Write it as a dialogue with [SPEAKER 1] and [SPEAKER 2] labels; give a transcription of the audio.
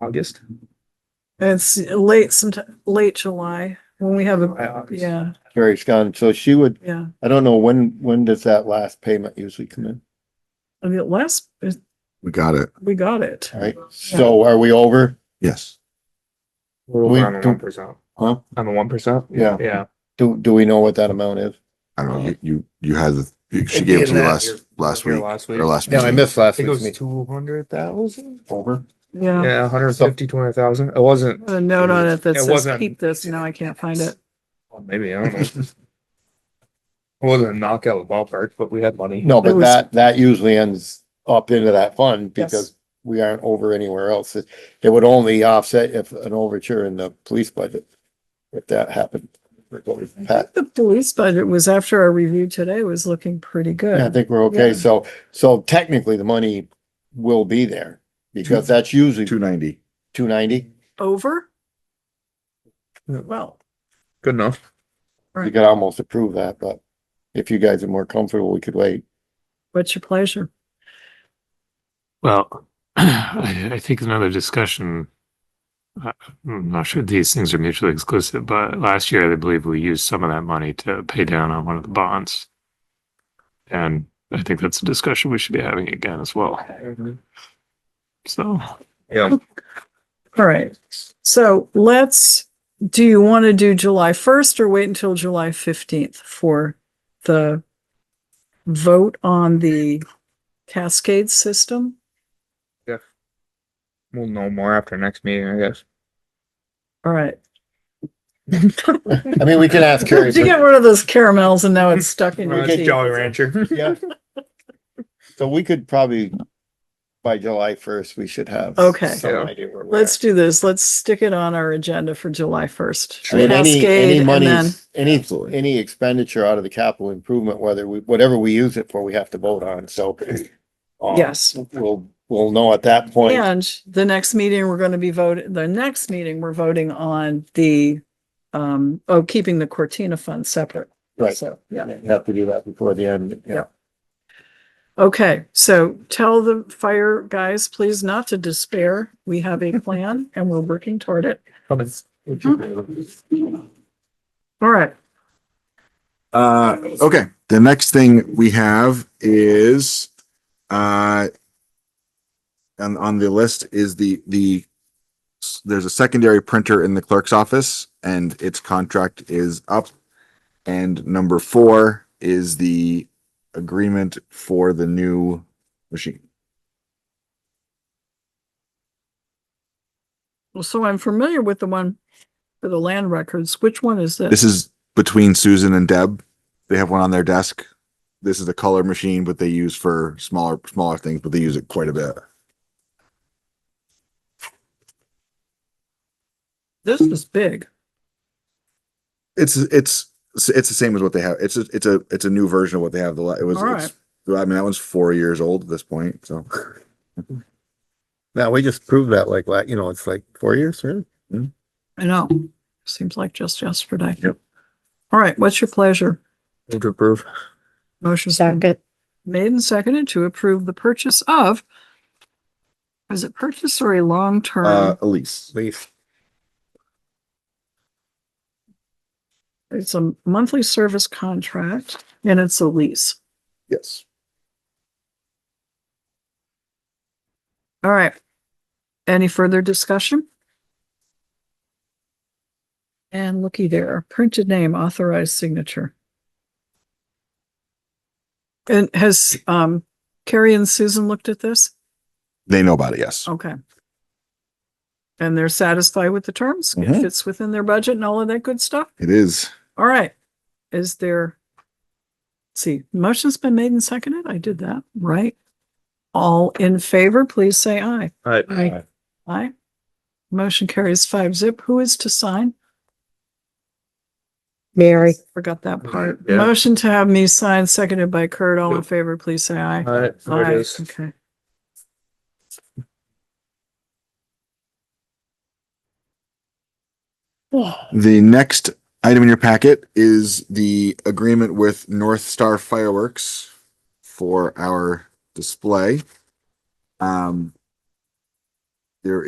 [SPEAKER 1] August?
[SPEAKER 2] It's late, sometime, late July, when we have
[SPEAKER 1] July,
[SPEAKER 2] a,
[SPEAKER 1] August.
[SPEAKER 2] yeah,
[SPEAKER 3] Carrie's gone, so she would,
[SPEAKER 2] yeah.
[SPEAKER 3] I don't know, when, when does that last payment usually come in?
[SPEAKER 2] I mean, last,
[SPEAKER 4] We got it.
[SPEAKER 2] we got it.
[SPEAKER 3] All right, so are we over?
[SPEAKER 4] Yes.
[SPEAKER 1] We're
[SPEAKER 3] We
[SPEAKER 1] over on the
[SPEAKER 3] do-
[SPEAKER 1] one percent.
[SPEAKER 3] Huh?
[SPEAKER 1] On the one percent?
[SPEAKER 3] Yeah,
[SPEAKER 1] Yeah.
[SPEAKER 3] do, do we know what that amount is?
[SPEAKER 4] I don't know. You, you, you had the, you- she gave it to
[SPEAKER 1] Again,
[SPEAKER 4] me
[SPEAKER 1] that
[SPEAKER 4] last,
[SPEAKER 1] here-
[SPEAKER 4] last
[SPEAKER 1] here
[SPEAKER 4] week
[SPEAKER 1] Last week.
[SPEAKER 4] or last.
[SPEAKER 3] No, I
[SPEAKER 4] meeting.
[SPEAKER 3] missed
[SPEAKER 1] I
[SPEAKER 3] last
[SPEAKER 1] think it
[SPEAKER 3] week's
[SPEAKER 1] was
[SPEAKER 3] meeting.
[SPEAKER 1] two hundred thousand?
[SPEAKER 3] Over.
[SPEAKER 2] Yeah.
[SPEAKER 1] Yeah, hundred fifty, two hundred thousand. It wasn't,
[SPEAKER 2] Put A note on it that
[SPEAKER 1] It
[SPEAKER 2] says
[SPEAKER 1] wasn't-
[SPEAKER 2] keep this, now I can't find it.
[SPEAKER 1] well, maybe, I don't know. It wasn't a knockout of the ballpark, but we had money.
[SPEAKER 3] No,
[SPEAKER 2] It
[SPEAKER 3] but
[SPEAKER 2] was-
[SPEAKER 3] that, that usually ends up into that fund
[SPEAKER 2] Yes.
[SPEAKER 3] because we aren't over anywhere else. It it would only offset if an overture in the police budget, if that happened.
[SPEAKER 2] I think
[SPEAKER 3] Pat,
[SPEAKER 2] The police budget was after our review today was looking pretty
[SPEAKER 3] I
[SPEAKER 2] good.
[SPEAKER 3] think we're okay.
[SPEAKER 2] Yeah.
[SPEAKER 3] So, so technically the money will be there because
[SPEAKER 4] Two-
[SPEAKER 3] that's usually
[SPEAKER 4] Two ninety.
[SPEAKER 3] two ninety.
[SPEAKER 2] Over?
[SPEAKER 1] Yeah.
[SPEAKER 2] Well,
[SPEAKER 1] Good enough.
[SPEAKER 3] You could almost approve that, but if you guys are more comfortable, we could wait.
[SPEAKER 2] what's your pleasure?
[SPEAKER 5] Well, I, I think another discussion. I- I'm not sure these things are mutually exclusive, but last year I believe we used some of that money to pay down on one of the bonds. And I think that's a discussion we should be having again as well.
[SPEAKER 1] Mm-hmm.
[SPEAKER 5] So
[SPEAKER 1] Yeah,
[SPEAKER 2] All right, so let's, do you want to do July first or wait until July fifteenth for the vote on the cascade system?
[SPEAKER 1] we'll know more after next meeting, I guess.
[SPEAKER 2] All right.
[SPEAKER 3] I mean, we can ask Carrie.
[SPEAKER 2] Did you get rid of those caramels and now it's stuck in your
[SPEAKER 1] Uh,
[SPEAKER 2] teeth?
[SPEAKER 1] Jolly Rancher.
[SPEAKER 3] Yeah. So we could probably, by July first, we should have.
[SPEAKER 2] Okay.
[SPEAKER 3] Some
[SPEAKER 1] Yeah.
[SPEAKER 3] idea where we're at.
[SPEAKER 2] Let's do this. Let's stick it on our agenda for July first.
[SPEAKER 3] I mean, any,
[SPEAKER 2] Cascade,
[SPEAKER 3] any
[SPEAKER 2] and then-
[SPEAKER 3] monies, any,
[SPEAKER 4] Absolutely.
[SPEAKER 3] any expenditure out of the capital improvement, whether we, whatever we use it for, we have to vote on, so. um,
[SPEAKER 2] Yes.
[SPEAKER 3] We'll, we'll know at that point.
[SPEAKER 2] And the next meeting, we're going to be voting, the next meeting, we're voting on the, um, oh, keeping the Cortina fund separate.
[SPEAKER 3] Right.
[SPEAKER 2] So, yeah.
[SPEAKER 3] Have to do that before the end, yeah.
[SPEAKER 2] Yeah. Okay, so tell the fire guys, please not to despair. We have a plan and we're working toward it.
[SPEAKER 1] Coming.
[SPEAKER 3] Mm-hmm.
[SPEAKER 2] All right.
[SPEAKER 4] Uh, okay, the next thing we have is, uh, and on the list is the, the, there's a secondary printer in the clerk's office and its contract is up. And number four is the agreement for the new machine.
[SPEAKER 2] Well, so I'm familiar with the one for the land records. Which one is this?
[SPEAKER 4] This is between Susan and Deb. They have one on their desk. This is a color machine, but they use for smaller, smaller things, but they use it quite a bit.
[SPEAKER 2] This is big.
[SPEAKER 4] It's, it's, it's the same as what they have. It's, a it's a, it's a new version of what they have. The, la- it was,
[SPEAKER 2] All
[SPEAKER 4] it's- I mean, that one's four years old at this point, so.
[SPEAKER 3] Now, we just proved that like, la- you know, it's like four years, right?
[SPEAKER 2] I know. Seems like just yesterday.
[SPEAKER 4] Yep.
[SPEAKER 2] All right, what's your pleasure?
[SPEAKER 1] Move to approve.
[SPEAKER 2] Motion's been made and seconded to approve the purchase of is it purchase or a
[SPEAKER 4] Uh,
[SPEAKER 2] long-term?
[SPEAKER 4] Elise,
[SPEAKER 3] Least.
[SPEAKER 2] It's a monthly service contract and it's a lease.
[SPEAKER 4] yes.
[SPEAKER 2] All right. Any further discussion? And looky there, printed name, authorized signature. And has, um, Carrie and Susan looked at this?
[SPEAKER 4] They know about it, yes.
[SPEAKER 2] Okay. And they're satisfied with the terms? It
[SPEAKER 4] Mhm.
[SPEAKER 2] fits within their budget and all of that good stuff?
[SPEAKER 4] It is.
[SPEAKER 2] All right. Is there, let's see, motion's been made and seconded? I did that, right? All in favor, please say aye.
[SPEAKER 1] Alright.
[SPEAKER 3] Aye.
[SPEAKER 2] Aye. Motion carries five zip. Who is to sign?
[SPEAKER 6] Mary,
[SPEAKER 2] Forgot that part.
[SPEAKER 1] Yeah.
[SPEAKER 2] Motion to have me sign, seconded by Kurt. All in favor, please say aye.
[SPEAKER 1] Alright, there
[SPEAKER 2] Aye.
[SPEAKER 1] it is.
[SPEAKER 2] Okay.
[SPEAKER 4] The next item in your packet is the agreement with North Star Fireworks for our display. Um,